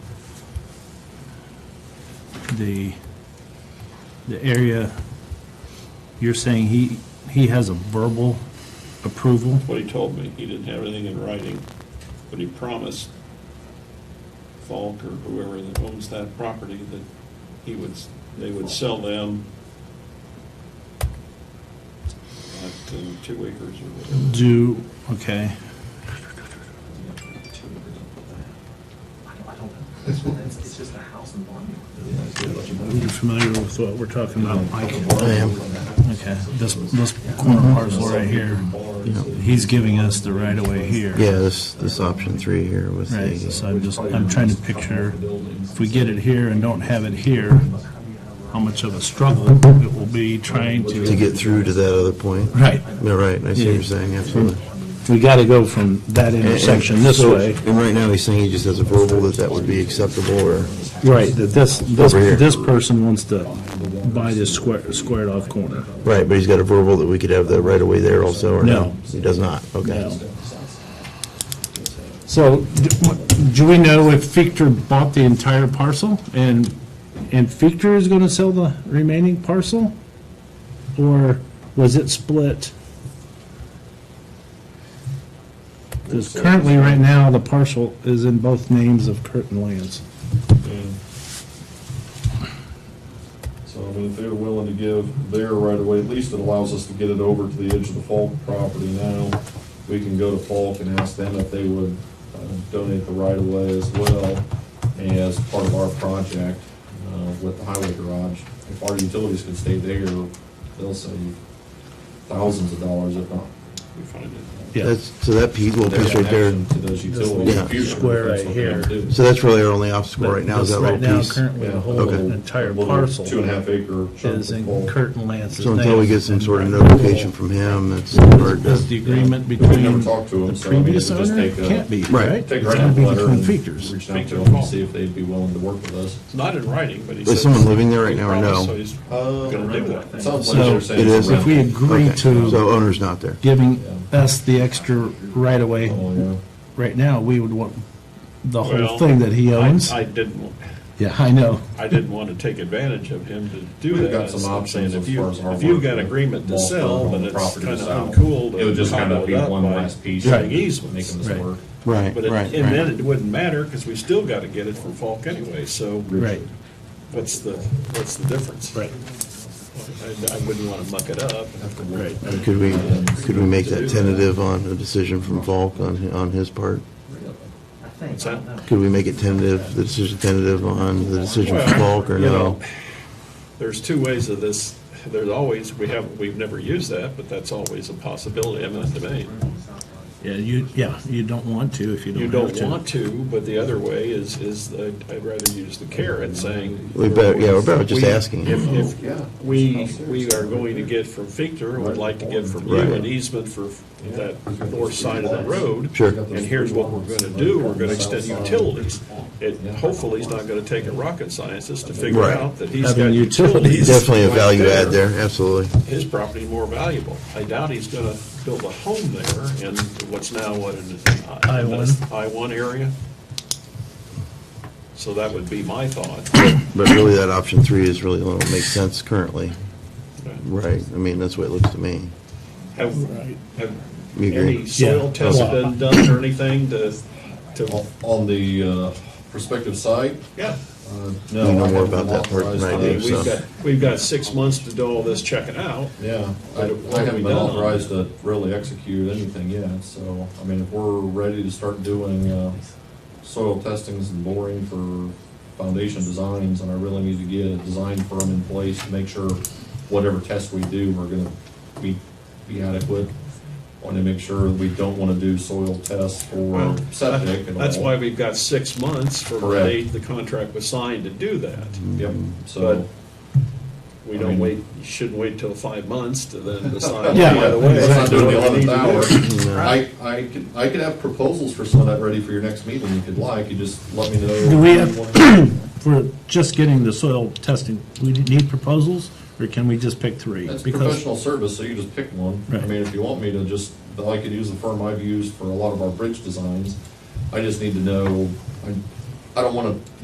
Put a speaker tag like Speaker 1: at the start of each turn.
Speaker 1: the, the area, you're saying he, he has a verbal approval?
Speaker 2: What he told me, he didn't have anything in writing, but he promised Falk or whoever that owns that property that he would, they would sell them at uh, two acres or whatever.
Speaker 1: Do, okay,
Speaker 3: It's just a house and barn.
Speaker 1: you're familiar with what we're talking about, Mike? Okay, this, this corner parcel right here, he's giving us the right of way here.
Speaker 4: Yeah, this, this option three here was
Speaker 1: Right, so
Speaker 4: the,
Speaker 1: I'm just, I'm trying to picture, if we get it here and don't have it here, how much of a struggle it will be trying
Speaker 4: to
Speaker 1: to.
Speaker 4: get through to that other point.
Speaker 1: Right.
Speaker 4: No, right, I see what
Speaker 1: Yeah.
Speaker 4: you're saying, absolutely.
Speaker 1: We got to go from that intersection this
Speaker 4: So-
Speaker 1: way,
Speaker 4: And right now, he's saying he just has a verbal that that would be acceptable, or,
Speaker 1: right, that this, this,
Speaker 4: Over here.
Speaker 1: this person wants to buy this square, squared off corner.
Speaker 4: right, but he's got a verbal that we could have the right-of-way there also, or no?
Speaker 1: No.
Speaker 4: He does not, okay.
Speaker 1: No. So, d- wh- do we know if Fichter bought the entire parcel, and, and Fichter is going to sell the remaining parcel? Or was it split? Because currently, right now, the parcel is in both names of Curtin Lands.
Speaker 5: So, I mean, if they're willing to give their right of way, at least it allows us to get it over to the edge of the Falk property now. We can go to Falk and ask them if they would uh, donate the right of way as well as part of our project uh, with the highway garage. If our utilities can stay there, they'll save thousands of dollars if not.
Speaker 2: We find it.
Speaker 4: That's, so that piece, little
Speaker 5: their
Speaker 4: piece right there,
Speaker 5: connection To those utilities.
Speaker 4: Yeah.
Speaker 5: That's
Speaker 1: square
Speaker 5: what
Speaker 1: right
Speaker 5: they'll
Speaker 1: here.
Speaker 5: do.
Speaker 4: so that's really our only obstacle right now, is that
Speaker 1: Right
Speaker 4: little
Speaker 1: now,
Speaker 4: piece.
Speaker 1: currently, the whole
Speaker 4: Okay.
Speaker 1: entire
Speaker 5: Little
Speaker 1: parcel
Speaker 5: Two and a half acre. chunk
Speaker 1: is
Speaker 5: of
Speaker 1: in
Speaker 5: Falk.
Speaker 1: Curtin Lands' name.
Speaker 4: So until we get some sort of notification from him, that's hard
Speaker 1: Is the
Speaker 4: to,
Speaker 1: agreement
Speaker 5: We've never
Speaker 1: between
Speaker 5: talked to him,
Speaker 1: the
Speaker 5: so, I mean,
Speaker 1: previous
Speaker 5: it would just
Speaker 1: owner?
Speaker 5: take a-
Speaker 1: Can't be,
Speaker 4: Right.
Speaker 1: right?
Speaker 5: Take
Speaker 1: It's
Speaker 5: a write
Speaker 1: gotta be
Speaker 5: letter
Speaker 1: between
Speaker 5: and
Speaker 1: Fichters.
Speaker 5: reach out to them and see if they'd be willing to work with us.
Speaker 2: It's not in writing, but he says.
Speaker 4: Is someone living there right now or no?
Speaker 2: So he's
Speaker 5: Oh,
Speaker 2: gonna do that.
Speaker 5: Sounds like
Speaker 1: So,
Speaker 5: they're saying
Speaker 4: it
Speaker 5: it's
Speaker 4: is.
Speaker 5: a
Speaker 1: If we
Speaker 5: rental.
Speaker 1: agree
Speaker 4: Okay,
Speaker 1: to
Speaker 4: so owner's not there.
Speaker 1: giving us the extra right-of-way
Speaker 5: Oh, yeah.
Speaker 1: right now, we would want the whole
Speaker 2: Well,
Speaker 1: thing that he
Speaker 2: I-
Speaker 1: owns.
Speaker 2: I didn't, wa-
Speaker 1: Yeah, I know.
Speaker 2: I didn't want to take advantage of him to do that.
Speaker 5: We've got some
Speaker 2: So I'm saying
Speaker 5: options
Speaker 2: if
Speaker 5: as
Speaker 2: you-
Speaker 5: far as our
Speaker 2: If you've
Speaker 5: work
Speaker 2: got
Speaker 5: with
Speaker 2: agreement to
Speaker 5: law firm
Speaker 2: sell,
Speaker 5: on
Speaker 2: then
Speaker 5: the
Speaker 2: it's
Speaker 5: property
Speaker 2: kind
Speaker 5: to
Speaker 2: of
Speaker 5: sell.
Speaker 2: uncool to.
Speaker 5: It would just kind
Speaker 2: cobble
Speaker 5: of
Speaker 2: it
Speaker 5: be
Speaker 2: up
Speaker 5: one
Speaker 2: by
Speaker 5: last piece.
Speaker 1: Right.
Speaker 2: Doing easements.
Speaker 5: Making this
Speaker 1: Right.
Speaker 5: work.
Speaker 4: Right,
Speaker 2: But, it-
Speaker 4: right,
Speaker 2: and then
Speaker 4: right.
Speaker 2: it wouldn't matter, because we still got to get it from Falk anyway, so.
Speaker 1: Right,
Speaker 2: What's the, what's the difference?
Speaker 1: right.
Speaker 2: I I wouldn't want to muck it up.
Speaker 1: Right.
Speaker 4: Could we, could we make that tentative on a decision from Volk on, on his part?
Speaker 3: I think,
Speaker 2: What's that?
Speaker 4: Could we make it tentative, the decision tentative on the decision from Volk or
Speaker 2: You
Speaker 4: no?
Speaker 2: know, There's two ways of this, there's always, we have, we've never used that, but that's always a possibility, eminent domain.
Speaker 1: Yeah, you, yeah, you don't want to if you
Speaker 2: You
Speaker 1: don't have
Speaker 2: don't
Speaker 1: to.
Speaker 2: want to, but the other way is, is I'd I'd rather use the carrot saying.
Speaker 4: We better, yeah, we're better just
Speaker 2: We-
Speaker 4: asking.
Speaker 2: If, if we, we are going to get from Fichter, would like to get from you
Speaker 4: Right.
Speaker 2: an easement for that north side of the road.
Speaker 4: Sure.
Speaker 2: And here's what we're gonna do, we're gonna extend utilities. It, hopefully, he's not gonna take a rocket scientist to figure
Speaker 4: Right.
Speaker 2: out that he's
Speaker 1: Having
Speaker 2: got
Speaker 1: utilities.
Speaker 2: utilities.
Speaker 4: Definitely a
Speaker 2: right
Speaker 4: value add there, absolutely.
Speaker 2: His property more valuable. I doubt he's gonna build a home there in what's now what, in the
Speaker 1: I one.
Speaker 2: I one area? So that would be my thought.
Speaker 4: But really, that option three is really the one that makes sense currently. Right, I mean, that's what it looks to me.
Speaker 2: Have, have
Speaker 4: You agree?
Speaker 2: any soil
Speaker 1: Yeah.
Speaker 2: tests been done or anything to, to,
Speaker 5: On- On the uh, prospective site,
Speaker 2: yeah.
Speaker 5: uh,
Speaker 4: You know
Speaker 5: no. I
Speaker 4: more
Speaker 5: haven't
Speaker 4: about that part than I
Speaker 2: I
Speaker 5: authorized
Speaker 4: do,
Speaker 2: mean,
Speaker 4: so.
Speaker 5: to-
Speaker 2: we've got, we've got six months to do all this checking out.
Speaker 5: Yeah, I
Speaker 2: What- what
Speaker 5: I
Speaker 2: have we
Speaker 5: haven't been
Speaker 2: done on
Speaker 5: authorized to really execute anything yet, so, I mean, if we're ready to start doing uh, soil testings and boring for foundation designs, and I really need to get a design firm in place to make sure whatever test we do, we're gonna be be adequate. Want to make sure that we don't want to do soil tests for
Speaker 2: Well,
Speaker 5: septic and all.
Speaker 2: That's why we've got six months from the
Speaker 5: Correct.
Speaker 2: date the contract was signed to do that.
Speaker 5: Yep,
Speaker 2: But
Speaker 5: so,
Speaker 2: we
Speaker 5: I
Speaker 2: don't
Speaker 5: mean-
Speaker 2: wait, you shouldn't wait till five months to then decide,
Speaker 1: Yeah.
Speaker 2: by the way.
Speaker 5: Let's not do it
Speaker 2: what we need
Speaker 5: the
Speaker 2: to do.
Speaker 5: 11th hour. I, I could, I could have proposals for some of that ready for your next meeting if you'd like, you just let me know.
Speaker 1: Do we have-
Speaker 5: when you want.
Speaker 1: We're just getting the soil testing. We need proposals, or can we just pick three?
Speaker 5: That's
Speaker 1: Because
Speaker 5: professional service, so you just pick one. I
Speaker 1: Right.
Speaker 5: mean, if you want me to just, I could use the firm I've used for a lot of our bridge designs. I just need to know, I, I don't wanna